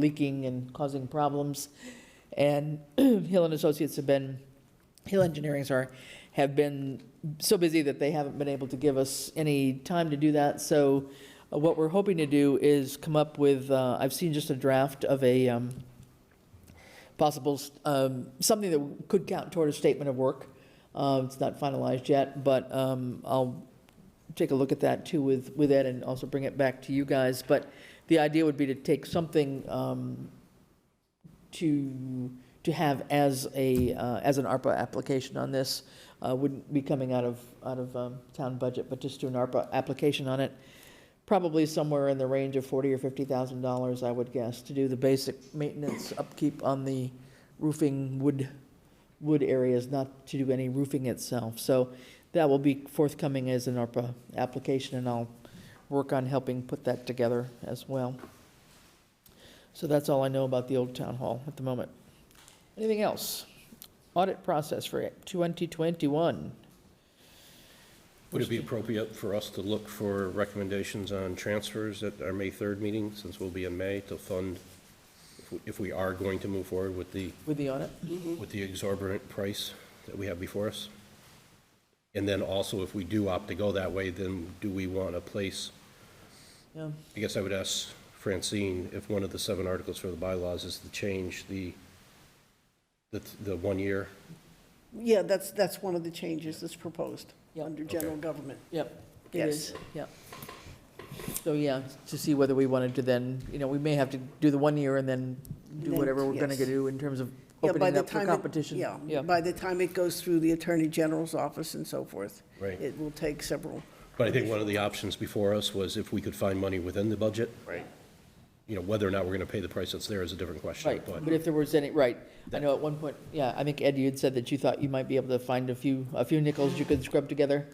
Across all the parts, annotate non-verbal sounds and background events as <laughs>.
leaking and causing problems. And <clears throat> Hill and Associates have been, Hill Engineering, sorry, have been so busy that they haven't been able to give us any time to do that. So uh, what we're hoping to do is come up with, uh, I've seen just a draft of a um, possible, um, something that could count toward a statement of work. Uh, It's not finalized yet, but um, I'll take a look at that too with, with Ed and also bring it back to you guys. But the idea would be to take something um, to, to have as a, uh, as an ARPA application on this. Uh, Wouldn't be coming out of, out of um, town budget, but just do an ARPA application on it. Probably somewhere in the range of forty or fifty thousand dollars, I would guess, to do the basic maintenance upkeep on the roofing wood, wood areas, not to do any roofing itself. So that will be forthcoming as an ARPA application, and I'll work on helping put that together as well. So that's all I know about the old town hall at the moment. Anything else? Audit process for 2021. Would it be appropriate for us to look for recommendations on transfers at our May 3rd meeting, since we'll be in May, to fund, if we- if we are going to move forward with the, With the audit? with the exorbitant price that we have before us? And then also, if we do opt to go that way, then do we want to place, Yeah. I guess I would ask Francine, if one of the seven articles for the bylaws is to change the, the, the one year? Yeah, that's, that's one of the changes that's proposed Yeah. under general Okay. government. Yep. it Yes. is, Yep. So, yeah, to see whether we wanted to then, you know, we may have to do the one year and then do Then, whatever we're going to yes. do in terms of Yeah, by opening the up for time it- competition. Yeah, by the time it goes through the Attorney General's office and so forth. Right. It will take several, But I think one of the options before us was if we could find money within the budget. Right. You know, whether or not we're going to pay the price that's there is a different question, Right, but but if there was any, right, I know at one point, yeah, I think Ed, you had said that you thought you might be able to find a few, a few nickels you could scrub together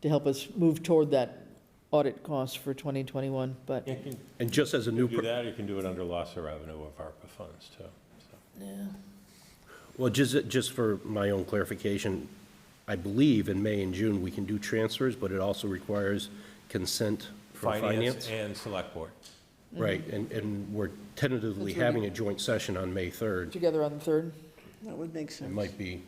to help us move toward that audit cost for 2021, but, You can And just as a new, do per- that, or you can do it under loss of revenue of ARPA funds, too. so. well, just, just for my own clarification, I believe in May and June, we can do transfers, but it also requires consent from finance. And Mm-hmm. select board. Right, and, and we're tentatively That's right. having a joint session on May 3rd. together on the 3rd? that would make It sense. might be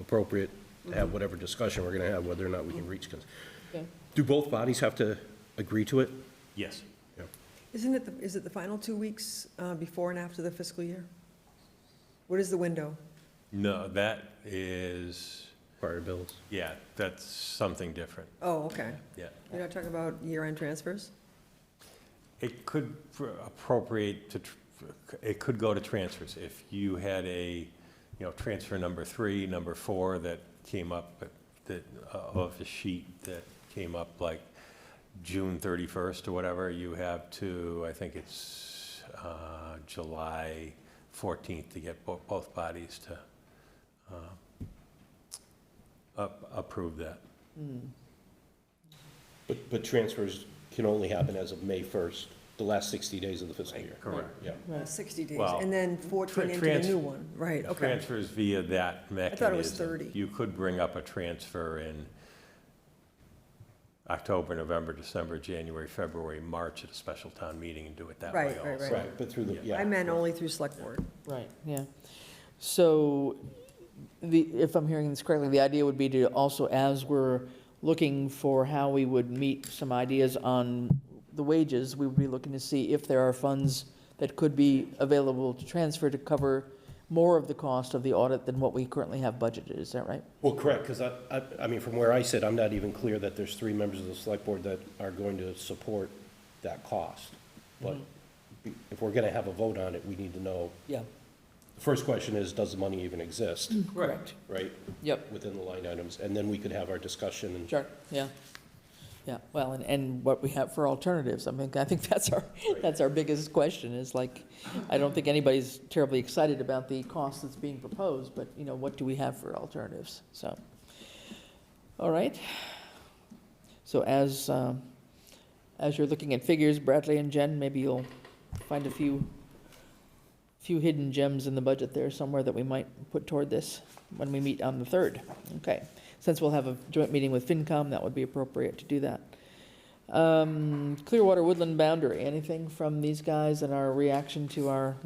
appropriate to Mm-hmm. have whatever discussion we're going to have, whether or not we can reach consent. Okay. Do both bodies have to agree to it? Yes. Isn't it, the- is it the final two weeks uh, before and after the fiscal year? What is the window? No, that is, Prior bills? yeah, that's something different, Oh, okay. yeah. You're not talking about year-end transfers? It could pr- appropriate to, tr- it could go to transfers. If you had a, you know, transfer number three, number four that came up, but that, uh, of the sheet that came up like June 31st or whatever, you have to, I think it's uh, July 14th to get bo- both bodies to uh, up- approve that. But, but transfers can only happen as of May 1st, the last 60 days of the fiscal year. Correct. Yeah. Right. 60 days, Well, and then 14 into the trans- new one, right, okay. Transfers via that mechanism. thought it was 30. You could bring up a transfer in October, November, December, January, February, March at a special town meeting and do it that way Right, right, also. Right, but through the, yeah. I meant only through select board. Right, yeah. So the, if I'm hearing this correctly, the idea would be to also, as we're looking for how we would meet some ideas on the wages, we would be looking to see if there are funds that could be available to transfer to cover more of the cost of the audit than what we currently have budgeted, is that right? Well, correct, because I, I, I mean, from where I sit, I'm not even clear that there's three members of the select board that are going to support that cost. But if we're going to have a vote on it, we need to know, Yeah. the first question is, does the money even exist, Correct. right, Yep, within the line items? And then we could have our discussion and. sure, yeah. Yeah, well, and, and what we have for alternatives, I mean, I think <laughs> that's our, that's our biggest question, is like, I don't think anybody's terribly excited about the cost that's being proposed, but, you know, what do we have for alternatives, so. All right. So as, um, as you're looking at figures, Bradley and Jen, maybe you'll find a few, few hidden gems in the budget there somewhere that we might put toward this when we meet on the third, okay? Since we'll have a joint meeting with FinCom, that would be appropriate to do that. Um, Clearwater Woodland Boundary, anything from these guys and our reaction to our